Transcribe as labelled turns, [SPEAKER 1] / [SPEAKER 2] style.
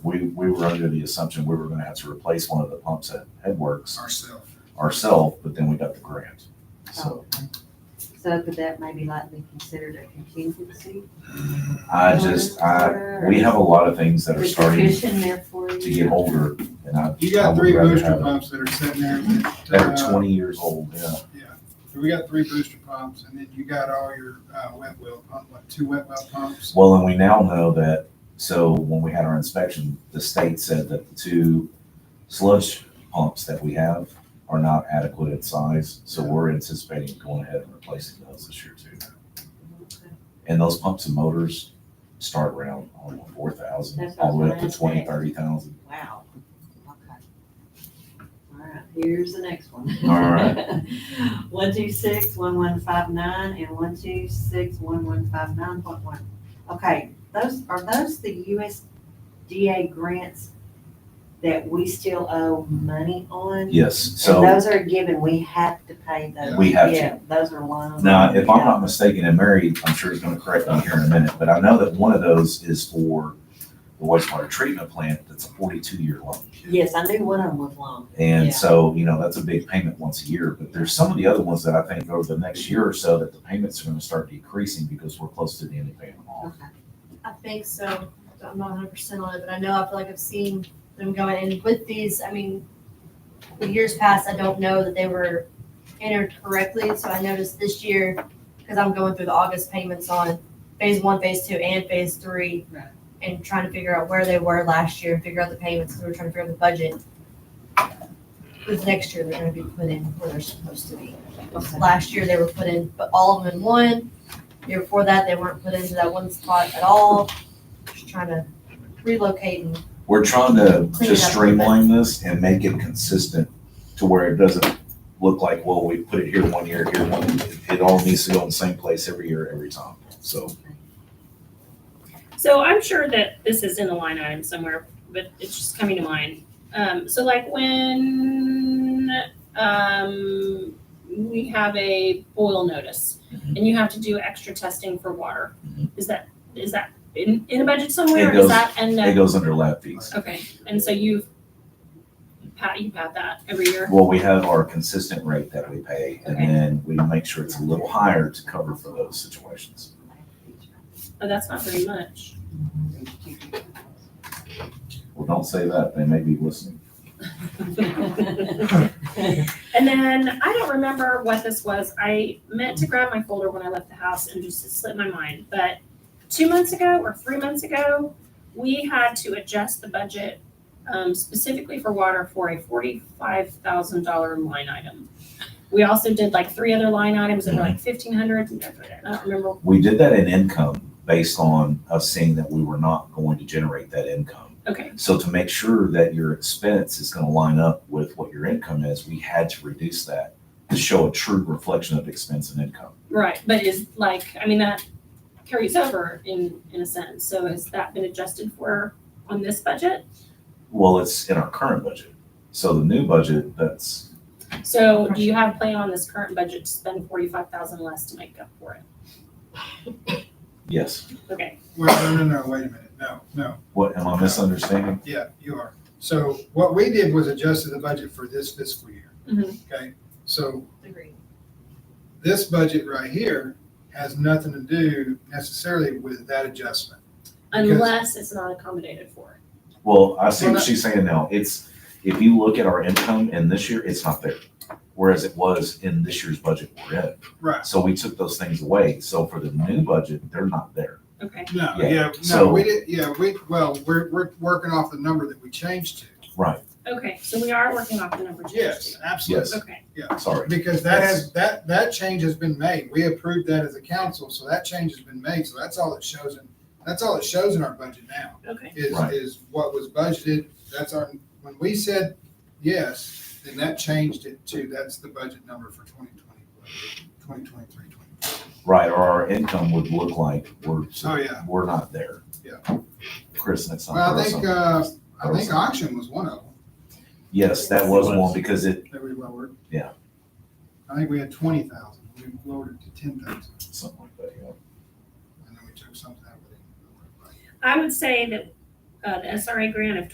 [SPEAKER 1] we were under the assumption we were gonna have to replace one of the pumps at Headworks
[SPEAKER 2] ourselves.
[SPEAKER 1] ourselves, but then we got the grant. So
[SPEAKER 3] So could that maybe like be considered a contingency?
[SPEAKER 1] I just, I, we have a lot of things that are
[SPEAKER 3] Is
[SPEAKER 1] starting
[SPEAKER 3] Fish in there for you?
[SPEAKER 1] to get older and I.
[SPEAKER 2] You
[SPEAKER 1] I
[SPEAKER 2] got
[SPEAKER 1] would
[SPEAKER 2] three
[SPEAKER 1] rather
[SPEAKER 2] booster
[SPEAKER 1] have it
[SPEAKER 2] pumps that are sitting there. that,
[SPEAKER 1] That
[SPEAKER 2] uh,
[SPEAKER 1] are twenty years old, yeah.
[SPEAKER 2] Yeah, we got three booster pumps, and then you got all your uh, wet well pump, like two wet well pumps.
[SPEAKER 1] Well, and we now know that, so when we had our inspection, the state said that the two sludge pumps that we have are not adequate in size, so we're anticipating going ahead and replacing those this year too. And those pumps and motors start around, I don't know, four thousand,
[SPEAKER 3] That's what I
[SPEAKER 1] all
[SPEAKER 3] was
[SPEAKER 1] the way up to
[SPEAKER 3] gonna
[SPEAKER 1] twenty,
[SPEAKER 3] say.
[SPEAKER 1] thirty thousand.
[SPEAKER 3] Wow. Okay. All right, here's the next one.
[SPEAKER 1] All right.
[SPEAKER 3] One, two, six, one, one, five, nine, and one, two, six, one, one, five, nine, point one. Okay, those, are those the USDA grants that we still owe money on?
[SPEAKER 1] Yes,
[SPEAKER 3] And
[SPEAKER 1] so
[SPEAKER 3] those are given, we have to pay those.
[SPEAKER 1] we have to.
[SPEAKER 3] Yeah, those are loans.
[SPEAKER 1] Now, if I'm
[SPEAKER 3] Yeah.
[SPEAKER 1] not mistaken, and Mary, I'm sure is gonna correct me here in a minute, but I know that one of those is for the wastewater treatment plant that's a forty-two year loan.
[SPEAKER 3] Yes, I knew one of them was long. Yeah.
[SPEAKER 1] And so, you know, that's a big payment once a year, but there's some of the other ones that I think over the next year or so that the payments are gonna start decreasing because we're close to the end of paying them off.
[SPEAKER 3] Okay.
[SPEAKER 4] I think so. I'm not hundred percent on it, but I know I feel like I've seen them going and with these, I mean, the years past, I don't know that they were entered correctly, so I noticed this year, because I'm going through the August payments on phase one, phase two, and phase three.
[SPEAKER 3] Right.
[SPEAKER 4] And trying to figure out where they were last year and figure out the payments, because we were trying to figure out the budget. With next year, they're gonna be put in where they're supposed to be. Last year, they were put in, but all of them in one. Year before that, they weren't put into that one spot at all. Just trying to relocate and
[SPEAKER 1] We're trying to
[SPEAKER 4] Clean it
[SPEAKER 1] just
[SPEAKER 4] up a
[SPEAKER 1] streamline this and make it consistent to where it doesn't look like, well, we put it here one year, here one, year. it all needs to go in the same place every year, every time, so.
[SPEAKER 5] So I'm sure that this is in a line item somewhere, but it's just coming to mind. Um, so like when, um, we have a boil notice
[SPEAKER 1] Mhm.
[SPEAKER 5] and you have to do extra testing for water.
[SPEAKER 1] Mhm.
[SPEAKER 5] Is that, is that in, in a budget somewhere?
[SPEAKER 1] It
[SPEAKER 5] or
[SPEAKER 1] goes-
[SPEAKER 5] Is that, and,
[SPEAKER 1] It
[SPEAKER 5] uh,
[SPEAKER 1] goes under lab fees.
[SPEAKER 5] okay, and so you've, pat, you pat that every year?
[SPEAKER 1] Well, we have our consistent rate that we pay and
[SPEAKER 5] Okay.
[SPEAKER 1] then we make sure it's a little higher to cover for those situations.
[SPEAKER 5] Oh, that's not very much.
[SPEAKER 1] Well, don't say that. They may be listening.
[SPEAKER 5] And then I don't remember what this was. I meant to grab my folder when I left the house and just it slipped my mind. But two months ago or three months ago, we had to adjust the budget um, specifically for water for a forty-five thousand dollar line item. We also did like three other line items that were like fifteen hundred. I don't remember.
[SPEAKER 1] We did that in income based on us seeing that we were not going to generate that income.
[SPEAKER 5] Okay,
[SPEAKER 1] So to make sure that your expense is going to line up with what your income is, we had to reduce that to show a true reflection of expense and income.
[SPEAKER 5] right. But is like I mean that carries over in in a sense. So has that been adjusted for on this budget?
[SPEAKER 1] Well, it's in our current budget. So the new budget, that's,
[SPEAKER 5] So do you have a plan on this current budget to spend forty-five thousand less to make up for it?
[SPEAKER 1] yes.
[SPEAKER 5] Okay,
[SPEAKER 2] Well, no, no, no, wait a minute, no, no,
[SPEAKER 1] What, am I misunderstanding?
[SPEAKER 2] yeah, you are. So what we did was adjusted the budget for this fiscal year.
[SPEAKER 5] Mhm.
[SPEAKER 2] Okay, so
[SPEAKER 4] agree.
[SPEAKER 2] this budget right here has nothing to do necessarily with that adjustment.
[SPEAKER 5] unless it's not accommodated for.
[SPEAKER 1] Well, I see
[SPEAKER 2] Well,
[SPEAKER 1] what
[SPEAKER 2] that-
[SPEAKER 1] she's saying now. It's, if you look at our income in this year, it's not there. Whereas it was in this year's budget we're in.
[SPEAKER 2] Right,
[SPEAKER 1] So we took those things away. So for the new budget, they're not there.
[SPEAKER 5] Okay,
[SPEAKER 2] no,
[SPEAKER 1] Yeah,
[SPEAKER 2] yeah, no,
[SPEAKER 1] so-
[SPEAKER 2] we did, yeah, we, well, we're, we're working off the number that we changed to.
[SPEAKER 1] Right.
[SPEAKER 5] okay, so we are working off the number change.
[SPEAKER 2] Yes, absolutely.
[SPEAKER 1] Yes.
[SPEAKER 5] Okay,
[SPEAKER 1] Sorry.
[SPEAKER 2] Because that has, that, that change has been made. We approved that as a council, so that change has been made. So that's all it shows in, that's all it shows in our budget now.
[SPEAKER 5] okay,
[SPEAKER 2] Is,
[SPEAKER 1] Right.
[SPEAKER 2] is what was budgeted. That's our, when we said yes, then that changed it to, that's the budget number for 2020, 2023, 2024.
[SPEAKER 1] Right. Or our income would look like we're,
[SPEAKER 2] Oh, yeah.
[SPEAKER 1] we're not there.
[SPEAKER 2] Yeah.
[SPEAKER 1] Chris, that's not.
[SPEAKER 2] Well, I
[SPEAKER 1] that's
[SPEAKER 2] think,
[SPEAKER 1] not-
[SPEAKER 2] uh, I think auction was one of them
[SPEAKER 1] Yes, that was one because it,
[SPEAKER 2] that we lowered.
[SPEAKER 1] Yeah.
[SPEAKER 2] I think we had twenty thousand. We lowered it to ten thousand.
[SPEAKER 1] something like that, yeah.
[SPEAKER 2] And then we took something out, but it.
[SPEAKER 5] I would say that, uh, the SRA grant of